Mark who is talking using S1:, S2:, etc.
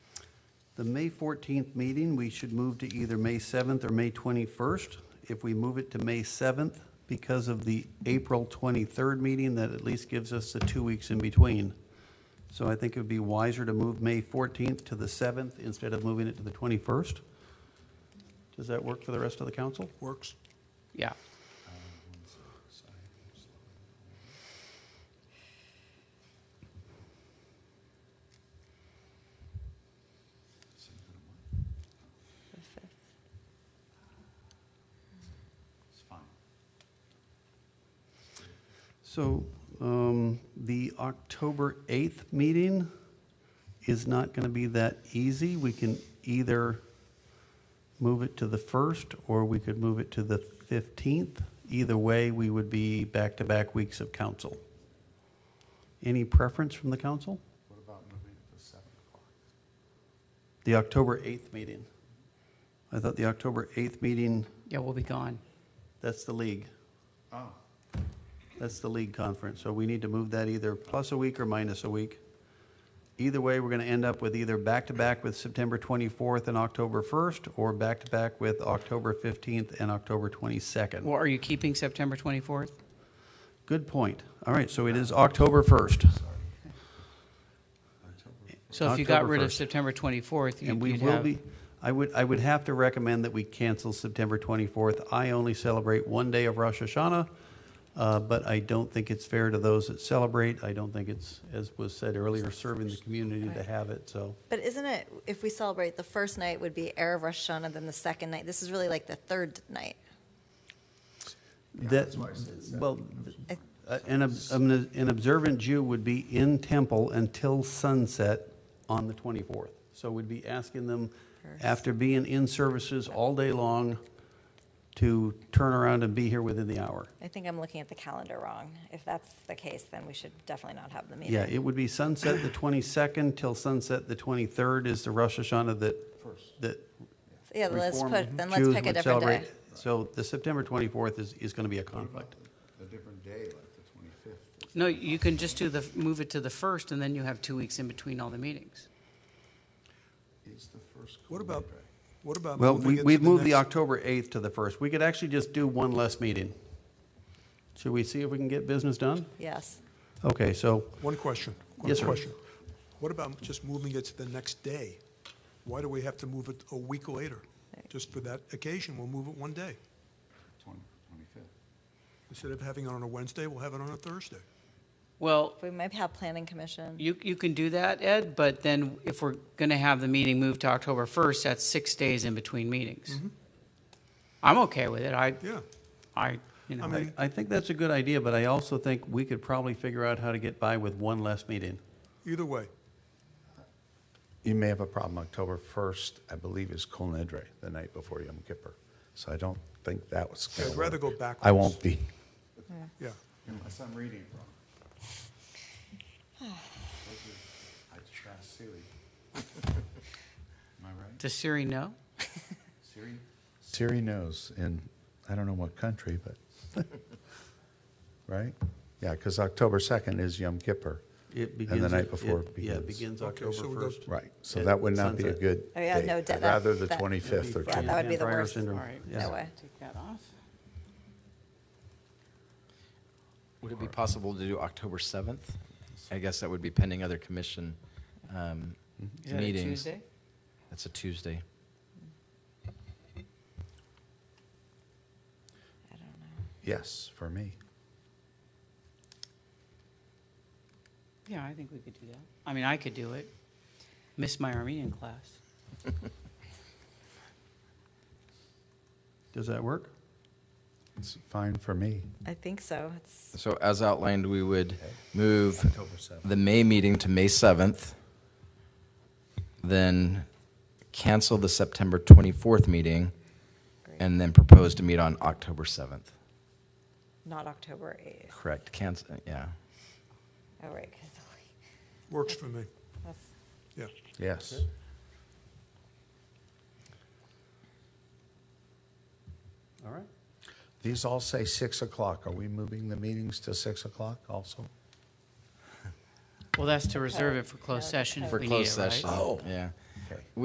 S1: The May 14th meeting, we should move to either May 7th or May 21st. If we move it to May 7th, because of the April 23rd meeting, that at least gives us the two weeks in between. So I think it would be wiser to move May 14th to the 7th instead of moving it to the 21st. Does that work for the rest of the council?
S2: Works.
S3: Yeah.
S4: It's fine.
S1: So um, the October 8th meeting is not going to be that easy. We can either move it to the 1st, or we could move it to the 15th. Either way, we would be back-to-back weeks of council. Any preference from the council?
S4: What about moving it to seven o'clock?
S1: The October 8th meeting. I thought the October 8th meeting,
S3: Yeah, we'll be gone.
S1: that's the league.
S4: Oh,
S1: That's the league conference, so we need to move that either plus a week or minus a week. Either way, we're gonna end up with either back-to-back with September twenty-fourth and October first, or back-to-back with October fifteenth and October twenty-second.
S3: Well, are you keeping September 24th?
S1: Good point. All right, so it is October first,
S3: So if you got
S1: October
S3: rid of
S1: 1st.
S3: September 24th,
S1: and
S3: you'd
S1: we
S3: you'd
S1: will
S3: have,
S1: be, I would, I would have to recommend that we cancel September twenty-fourth. I only celebrate one day of Rosh Hashanah, uh, but I don't think it's fair to those that celebrate. I don't think it's, as was said earlier, serving the community to have it, so.
S5: But isn't it, if we celebrate, the first night would be Erev Rosh Hashanah, then the second night? This is really like the third night.
S1: That, well,
S5: I-
S1: uh, an, ob- an an observant Jew would be in temple until sunset on the 24th. So we'd be asking them, after being in services all day long, to turn around and be here within the hour.
S5: I think I'm looking at the calendar wrong. If that's the case, then we should definitely not have the meeting.
S1: Yeah, it would be sunset the 22nd till sunset the 23rd is the Rosh Hashanah that, that
S5: Yeah, let's
S1: Reform
S5: put, then let's
S1: Jews
S5: pick a
S1: would
S5: different day.
S1: celebrate. So the September 24th is, is going to be a conflict.
S4: a different day, like the twenty-fifth.
S3: no, you can just do the, move it to the 1st, and then you have two weeks in between all the meetings.
S4: Is the first.
S2: What about, what about?
S1: Well,
S2: moving it
S1: we,
S2: to
S1: we've moved the
S2: next-
S1: October 8th to the 1st. We could actually just do one less meeting. Should we see if we can get business done?
S5: Yes.
S1: Okay, so,
S2: One question. one
S1: Yes, sir.
S2: question. What about just moving it to the next day? Why do we have to move it a week later? Just for that occasion, we'll move it one day.
S4: Twenty, twenty-fifth.
S2: Instead of having it on a Wednesday, we'll have it on a Thursday.
S3: Well,
S5: We might have planning commission.
S3: you, you can do that, Ed, but then if we're going to have the meeting moved to October 1st, that's six days in between meetings.
S1: Mm-hmm.
S3: I'm okay with it. I,
S2: Yeah.
S3: I, you know.
S2: I
S1: I,
S2: mean-
S1: I think that's a good idea, but I also think we could probably figure out how to get by with one less meeting.
S2: Either way,
S6: You may have a problem. October 1st, I believe, is Kol Nidre, the night before Yom Kippur. So I don't think that was. gonna
S2: I'd rather
S6: work.
S2: go
S6: I
S2: backwards.
S6: won't be.
S2: yeah.
S4: Unless I'm reading wrong. Those are- I trust Siri. Am I right?
S3: Does Siri know?
S4: Siri?
S6: Siri knows in, I don't know what country, but, right? Yeah, because October 2nd is Yom Kippur.
S1: It begins.
S6: And the
S1: it-
S6: night before
S1: it-
S6: it
S1: Yeah, it
S6: begins.
S1: begins
S2: Okay,
S1: October
S2: so we go-
S1: 1st.
S6: Right, so
S1: At
S6: that would not be a
S1: sunset.
S6: good
S5: Oh, yeah,
S6: date.
S5: no, that-
S6: I'd rather the
S5: that-
S6: 25th or
S1: It'd be
S5: Yeah,
S6: 20th.
S5: that would be the
S1: Frankenheimer
S5: worst.
S1: syndrome.
S3: All right.
S1: Yeah.
S5: No way.
S3: Take that off.
S7: Would it be possible to do October 7th? I guess that would be pending other commission um,
S3: Is that a
S7: meetings.
S3: Tuesday?
S7: That's a Tuesday.
S5: I don't know.
S6: Yes, for me.
S3: Yeah, I think we could do that. I mean, I could do it. Miss my Armenian class.
S1: Does that work?
S6: It's fine for me.
S5: I think so. It's,
S7: So as outlined, we would move
S6: October 7th.
S7: the May meeting to May 7th, then cancel the September 24th meeting, and then propose to meet on October 7th.
S5: not October 8th.
S7: Correct, cancel, yeah.
S5: Oh, right, because
S2: Works for me.
S5: that's,
S2: Yeah.
S6: Yes.
S1: All right.
S6: These all say 6 o'clock. Are we moving the meetings to 6 o'clock also?
S3: Well, that's to reserve it for closed
S5: Okay.
S3: session if
S7: For
S3: we need
S7: closed
S3: it, right?
S7: session, yeah.
S6: Okay.